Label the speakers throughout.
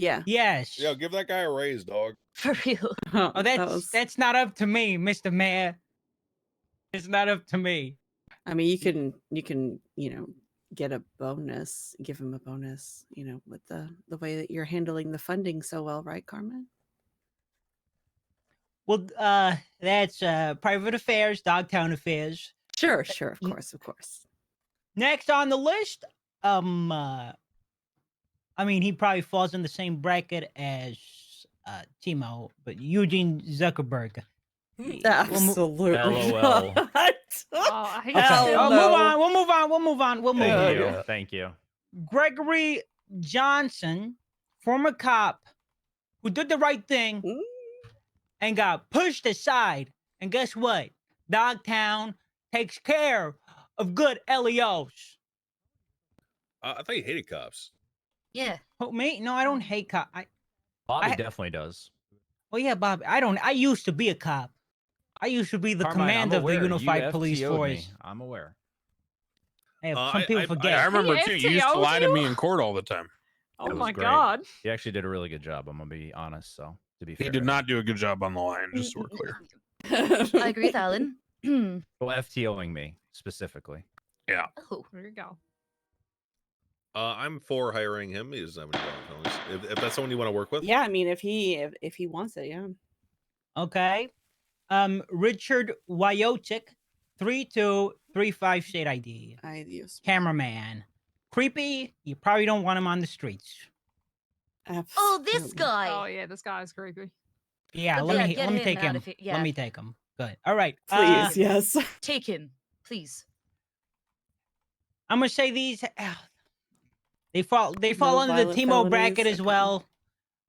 Speaker 1: Yeah.
Speaker 2: Yes.
Speaker 3: Yo, give that guy a raise, dog.
Speaker 4: For real.
Speaker 2: Oh, that's
Speaker 1: was-
Speaker 2: that's not up to me, Mr. Mayor. It's not up to me.
Speaker 1: I mean, you can you can you know get a bonus, give him a bonus, you know, with the the way that you're handling the funding so well, right, Carmen?
Speaker 2: Well, uh, that's uh, private affairs, Dogtown affairs.
Speaker 1: Sure, sure, of
Speaker 2: Mm.
Speaker 1: course, of course.
Speaker 2: Next on the list, um, uh, I mean, he probably falls in the same bracket as uh, Timo, but Eugene Zuckerberg.
Speaker 1: Absolutely.
Speaker 5: LOL.
Speaker 1: not.
Speaker 4: Oh, I
Speaker 1: Hell
Speaker 2: Okay, we'll
Speaker 1: no.
Speaker 4: still-
Speaker 2: move on. We'll move on. We'll move on. We'll move
Speaker 5: Thank
Speaker 2: on.
Speaker 5: you.
Speaker 1: yeah.
Speaker 5: Thank you.
Speaker 2: Gregory Johnson, former cop, who did the right thing
Speaker 1: Ooh.
Speaker 2: and got pushed aside. And guess what? Dogtown takes care of good E LEOs.
Speaker 3: I, I thought he hated cops.
Speaker 4: Yeah.
Speaker 2: Oh, me? No, I don't hate cop. I,
Speaker 5: Bobby
Speaker 2: I-
Speaker 5: definitely does.
Speaker 2: well, yeah, Bob. I don't. I used to be a cop. I used to be the
Speaker 5: Carmine, I'm
Speaker 2: commander of the
Speaker 5: aware. You
Speaker 2: Unified Police
Speaker 5: FTO'd me.
Speaker 2: Force.
Speaker 5: I'm aware.
Speaker 2: Hey,
Speaker 6: Uh,
Speaker 2: some
Speaker 6: I-
Speaker 2: people
Speaker 6: I,
Speaker 2: forget.
Speaker 6: I, I remember
Speaker 4: He
Speaker 6: too. You used to
Speaker 4: FTO'd
Speaker 6: lie to
Speaker 4: you?
Speaker 6: me in court all the time.
Speaker 4: Oh
Speaker 5: was
Speaker 4: my
Speaker 5: great.
Speaker 4: god.
Speaker 5: He actually did a really good job. I'm gonna be honest. So to be fair,
Speaker 6: He did not do a good job on the line, just so we're clear.
Speaker 7: I agree with Alan. oh,
Speaker 5: Well, FTOing me specifically.
Speaker 4: there you go.
Speaker 3: Uh, I'm for hiring him. He doesn't have any bad feelings. If, if that's someone you want to work with,
Speaker 1: yeah, I mean, if he if, if he wants it, yeah.
Speaker 2: Okay. Um, Richard Wyotic, 3235 state ID.
Speaker 1: I use
Speaker 2: cameraman. Creepy. You probably don't want him on the streets.
Speaker 7: this
Speaker 1: absolutely.
Speaker 7: guy.
Speaker 4: Oh yeah, this guy's creepy.
Speaker 2: Yeah,
Speaker 7: But
Speaker 2: let
Speaker 7: yeah,
Speaker 2: me
Speaker 7: get
Speaker 2: let me
Speaker 7: him
Speaker 2: take
Speaker 7: out
Speaker 2: him.
Speaker 7: of here, yeah.
Speaker 2: Let me take him. Good. All right. uh,
Speaker 1: Please, yes.
Speaker 7: Take him, please.
Speaker 2: I'm gonna say these. ah, They fall. They fall
Speaker 1: No
Speaker 2: under the
Speaker 1: violent
Speaker 2: Timo bracket
Speaker 1: felonies,
Speaker 2: as
Speaker 1: okay.
Speaker 2: well.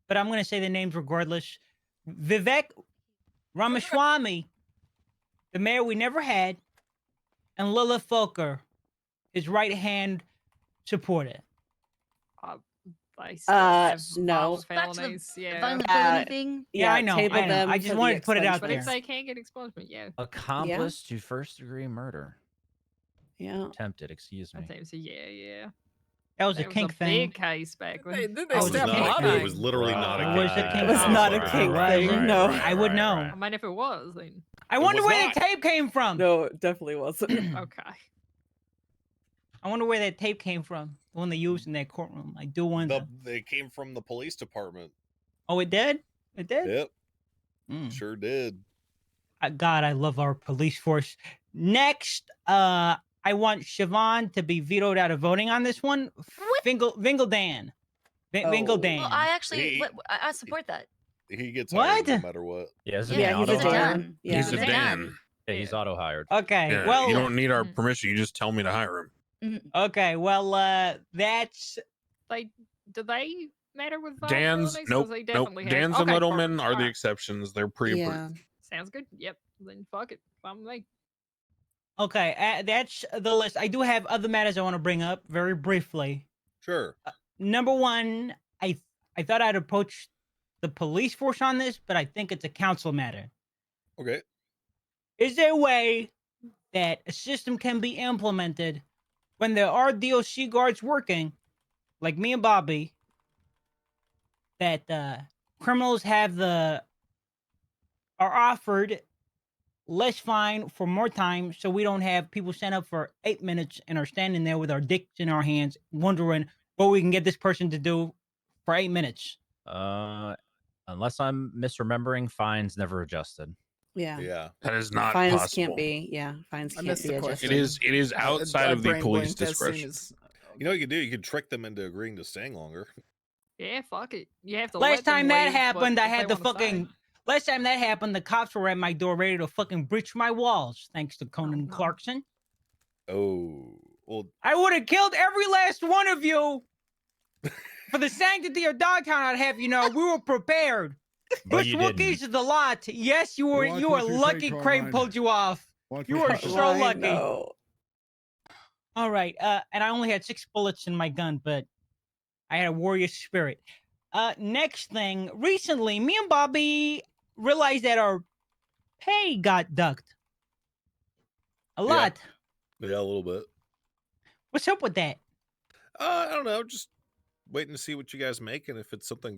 Speaker 2: But I'm gonna say the names regardless. Vivek Ramaswamy, the mayor we never had, and Lilith Foker, his right hand supporter.
Speaker 4: I still
Speaker 1: Uh,
Speaker 4: have
Speaker 1: no.
Speaker 4: mild
Speaker 7: Back to the
Speaker 4: felonies, yeah.
Speaker 7: Violent
Speaker 1: Uh,
Speaker 7: felony thing.
Speaker 2: Yeah, I know,
Speaker 1: table
Speaker 2: I know.
Speaker 1: them
Speaker 2: I just
Speaker 1: for the
Speaker 2: wanted to put it out
Speaker 4: But if
Speaker 2: there.
Speaker 4: they can't get expungement, yeah,
Speaker 5: Accomplice to first degree murder.
Speaker 1: Yeah.
Speaker 5: Attempted. Excuse me.
Speaker 4: that seems a yeah, yeah.
Speaker 2: That was a
Speaker 4: That was
Speaker 2: kink
Speaker 4: a
Speaker 2: thing.
Speaker 4: big case back
Speaker 8: They,
Speaker 4: when.
Speaker 8: then
Speaker 2: I
Speaker 3: it
Speaker 8: they
Speaker 2: Oh,
Speaker 3: was,
Speaker 2: it's
Speaker 8: step
Speaker 3: not
Speaker 2: definitely
Speaker 3: a,
Speaker 8: on
Speaker 3: kink-
Speaker 8: it.
Speaker 3: it was literally not a
Speaker 5: Right,
Speaker 2: It was a
Speaker 5: right,
Speaker 2: kink
Speaker 1: It was
Speaker 5: right,
Speaker 1: not a
Speaker 5: right,
Speaker 1: kink
Speaker 5: right,
Speaker 1: thing,
Speaker 5: right,
Speaker 1: no.
Speaker 5: right,
Speaker 2: I would
Speaker 5: right,
Speaker 2: know.
Speaker 5: right.
Speaker 4: I mean, if it was, then
Speaker 2: I
Speaker 3: It
Speaker 2: wonder
Speaker 3: was
Speaker 2: where
Speaker 3: not.
Speaker 2: the tape came from.
Speaker 1: No, it definitely wasn't.
Speaker 4: okay.
Speaker 2: I wonder where that tape came from. The one they used in that courtroom. I do wonder.
Speaker 3: The, they came from the police department.
Speaker 2: Oh, it did. It did.
Speaker 3: Yep,
Speaker 2: Mm.
Speaker 3: sure did.
Speaker 2: Uh, God, I love our police force. Next, uh, I want Siobhan to be vetoed out of voting on this one.
Speaker 7: What?
Speaker 2: Vingle Vingledan. Vin-
Speaker 1: Oh.
Speaker 2: Vingledan.
Speaker 7: Well, I actually,
Speaker 3: He-
Speaker 7: what, I, I support that.
Speaker 3: He gets
Speaker 2: What?
Speaker 3: hired no matter what.
Speaker 5: Yeah, it's a
Speaker 1: Yeah,
Speaker 5: Dan.
Speaker 1: he's a
Speaker 5: Auto hire.
Speaker 1: Dan.
Speaker 7: done.
Speaker 1: Yeah.
Speaker 6: He's a
Speaker 7: He's a
Speaker 6: Dan.
Speaker 7: Dan.
Speaker 5: Yeah, he's auto hired.
Speaker 2: okay.
Speaker 6: Yeah,
Speaker 2: well,
Speaker 6: you don't need our
Speaker 4: Mm.
Speaker 6: permission. You just tell me to hire him.
Speaker 2: okay. Well, uh, that's
Speaker 4: They do they matter with violent
Speaker 6: Dan's
Speaker 4: felonies? 'Cause
Speaker 6: nope,
Speaker 4: They
Speaker 6: nope.
Speaker 4: definitely have-
Speaker 6: Dan's and
Speaker 4: okay,
Speaker 6: Littleman
Speaker 4: perfect.
Speaker 6: are the
Speaker 4: Alright,
Speaker 6: exceptions. They're pre-approved.
Speaker 1: yeah.
Speaker 4: Sounds good. Yep. Then fuck it. I'm like,
Speaker 2: okay. Uh, that's the list. I do have other matters I want to bring up very briefly.
Speaker 3: Sure.
Speaker 2: number one, I I thought I'd approach the police force on this, but I think it's a council matter.
Speaker 3: Okay.
Speaker 2: Is there a way that a system can be implemented when there are DOC guards working, like me and Bobby, that uh, criminals have the are offered less fine for more time, so we don't have people stand up for eight minutes and are standing there with our dicks in our hands, wondering what we can get this person to do for eight minutes.
Speaker 5: Uh, unless I'm misremembering, fines never adjusted.
Speaker 1: Yeah.
Speaker 3: Yeah.
Speaker 6: That is not
Speaker 1: fines
Speaker 6: possible.
Speaker 1: can't be. Yeah, fines
Speaker 8: I
Speaker 1: can't
Speaker 8: missed
Speaker 1: be
Speaker 8: the
Speaker 1: adjusted.
Speaker 6: It is. It is
Speaker 8: I-
Speaker 6: outside
Speaker 8: I
Speaker 6: of the
Speaker 8: brain
Speaker 6: police
Speaker 8: blanked as soon
Speaker 6: discretion.
Speaker 8: as-
Speaker 3: You know what you could do? You could trick them into agreeing to staying longer.
Speaker 4: yeah, fuck it. You have to.
Speaker 2: Last
Speaker 4: let them
Speaker 2: time that
Speaker 4: leave, but
Speaker 2: happened, I
Speaker 4: if they
Speaker 2: had the
Speaker 4: wanna stay-
Speaker 2: fucking. Last time that happened, the cops were at my door ready to fucking breach my walls, thanks to Conan
Speaker 4: no.
Speaker 2: Clarkson.
Speaker 3: Oh, well,
Speaker 2: I would have killed every last one of you. For the sanctity of Dogtown, I'd have you know we were prepared.
Speaker 5: But
Speaker 2: Which
Speaker 5: you didn't.
Speaker 2: Wookiees of the lot? Yes, you were.
Speaker 9: Why
Speaker 2: You were
Speaker 9: can't you say
Speaker 2: lucky. Crane
Speaker 9: Carmine?
Speaker 2: pulled you off. You
Speaker 9: were
Speaker 2: are so lucky.
Speaker 1: No.
Speaker 2: All right. Uh, and I only had six bullets in my gun, but I had a warrior spirit. Uh, next thing, recently, me and Bobby realized that our pay got ducked a lot.
Speaker 3: yeah, a little bit.
Speaker 2: What's up with that?
Speaker 3: Uh, I don't know. Just waiting to see what you guys make and if it's something